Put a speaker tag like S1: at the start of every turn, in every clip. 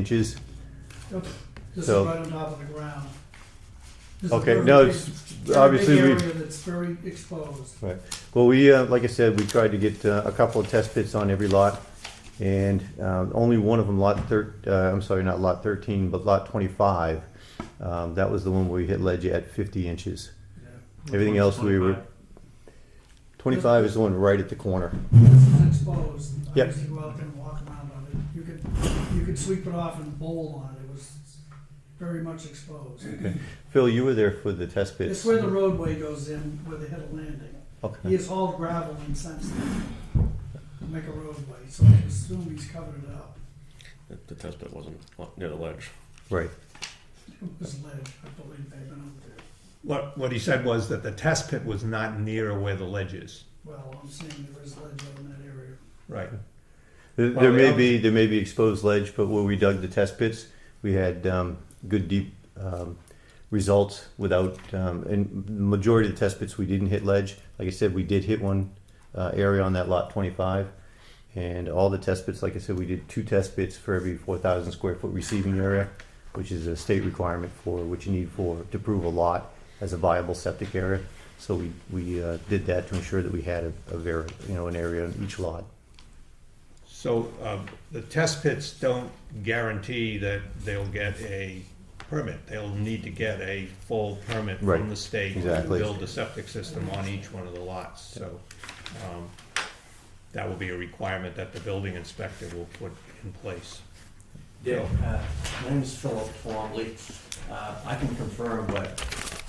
S1: inches.
S2: Yep, This is
S1: So-
S2: right on top of the ground. This is
S1: Okay,
S2: very
S1: no,
S2: big-
S1: it's-
S2: very big
S1: obviously we-
S2: Area that's very exposed.
S1: Right. Well, we, uh, like I said, we tried to get uh, a couple of test pits on every lot, and um, only one of them, lot thir, uh, I'm sorry, not lot 13, but lot 25, um, that was the one where we hit ledge at 50 inches. Everything else we were, 25 is the one right at the corner.
S2: This is exposed. I
S1: Yep.
S2: used to go out there and walk around on it. You could, you could sweep it off and bowl on it. It was very much exposed.
S1: Phil, you were there for the test
S2: It's
S1: pits.
S2: where the roadway goes in, where they had a landing. He
S1: Okay.
S2: has hauled gravel in since then to make a roadway, so I assume he's covered it up.
S3: The- The test pit wasn't near the ledge.
S1: Right.
S2: It was ledge, I believe they've been out there.
S4: What, what he said was that the test pit was not near where the ledge is.
S2: Well, I'm seeing there is ledge out in that area.
S4: Right.
S1: There
S4: Well,
S1: there may
S4: we-
S1: be, there may be exposed ledge, but where we dug the test pits, we had um, good deep um, results without, um, and the majority of the test pits, we didn't hit ledge. Like I said, we did hit one uh, area on that lot 25. And all the test pits, like I said, we did two test pits for every 4,000 square foot receiving area, which is a state requirement for, which you need for, to prove a lot as a viable septic area. So we, we uh, did that to ensure that we had a, a ver, you know, an area in each lot.
S4: So, uh, the test pits don't guarantee that they'll get a permit. They'll need to get a full permit
S1: Right.
S4: from the state to
S1: Exactly.
S4: build a septic system on each one of the lots, so, um, that will be a requirement that the building inspector will put in place.
S5: Dick, uh, my name is Philip Twombly. Uh, I can confirm what,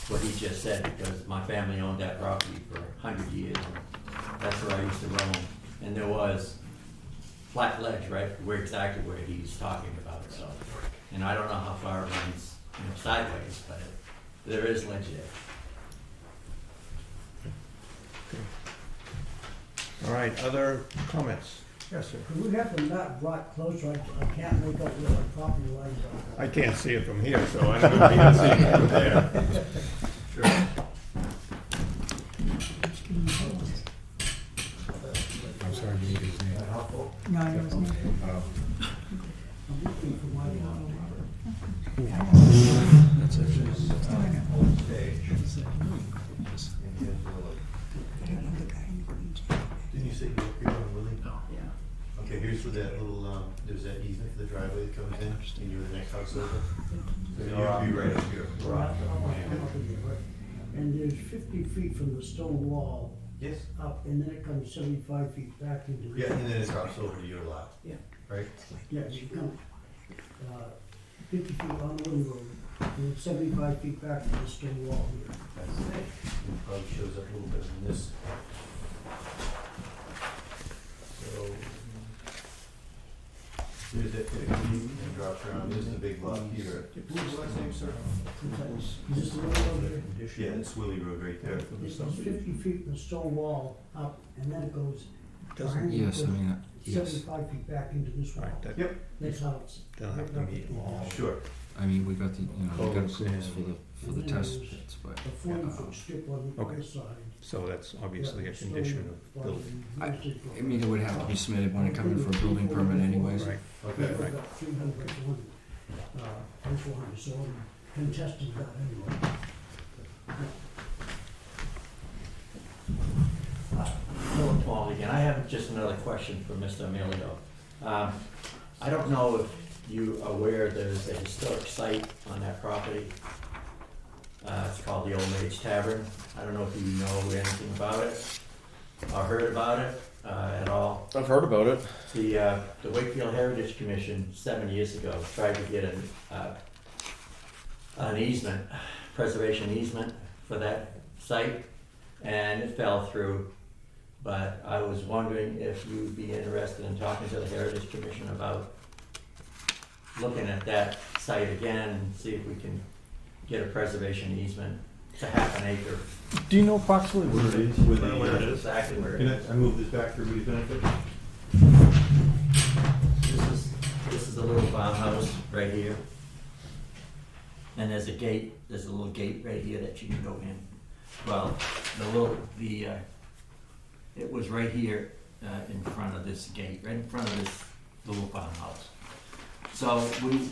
S5: what he just said because my family owned that property for a hundred years. That's where I used to roam. And there was flat ledge, right, where exactly where he's talking about, so. And I don't know how far it runs, you know, sideways, but it- there is ledge there.
S4: All right, other comments? Yes, sir.
S6: Could we have them not brought closer? I, I can't make out where the property lines are.
S4: I can't see it from here, so I don't know if you can see it from there.
S2: No, it wasn't.
S1: Didn't you say you were creeping on Willie? Yeah. Okay, here's where that little, um, there's that easement for the driveway that comes in, and you're the next house over. So you'd be right up here.
S6: And there's fifty feet from the stone wall
S1: Yes,
S6: up, and then it comes seventy-five feet back into the.
S1: yeah, and then it drops over to your lot.
S6: Yeah.
S1: Right?
S6: Yes, you come, uh, fifty feet on the road, and then seventy-five feet back to the stone wall here.
S1: That's it. It Probably shows up a little bit in this. So. There's that fifty, and it drops around, this is a big lot here. What's the last name, sir?
S6: Sometimes, is this the road over here?
S1: Yeah, it's Willie Road right there.
S6: This is fifty feet from the stone wall up, and then it goes.
S4: Doesn't,
S6: Yes, I mean, Seventy-five feet back into this
S4: all
S6: wall,
S4: right, that,
S1: Yep.
S6: next house.
S4: they'll have to meet all.
S1: Sure.
S7: I mean, we got the, you know, we got
S1: Codes
S7: approvals for
S1: and-
S7: the, for the
S6: And
S7: test
S6: there's
S7: pits, but
S6: A forty-foot strip on the
S4: Okay.
S6: other side.
S4: So that's obviously a condition of building.
S6: uh,
S7: I mean, it would have to be submitted when it comes in for a building permit anyways.
S4: Right,
S1: Okay.
S4: right.
S6: Three hundred to one, uh, and four hundred, so I'm contesting that anyway.
S5: Philip Twombly again, I have just another question for Mr. Emilio. Um, I don't know if you are aware there's a historic site on that property. Uh, it's called the Old Maids Tavern. I don't know if you know anything about it or heard about it, uh, at all.
S3: I've heard about it.
S5: The, uh, the Wakefield Heritage Commission, seven years ago, tried to get an, uh, an easement, preservation easement for that site, and it fell through. But I was wondering if you'd be interested in talking to the Heritage Commission about looking at that site again, and see if we can get a preservation easement to half an acre,
S3: Do you know approximately
S1: Where it is, where the,
S3: Where it is.
S5: exactly where it
S1: Can
S5: is.
S1: I, I move this back for everybody's benefit?
S5: This is, this is the little farmhouse right here. And there's a gate, there's a little gate right here that you can go in. Well, the little, the, uh, it was right here, uh, in front of this gate, right in front of this little farmhouse. So we,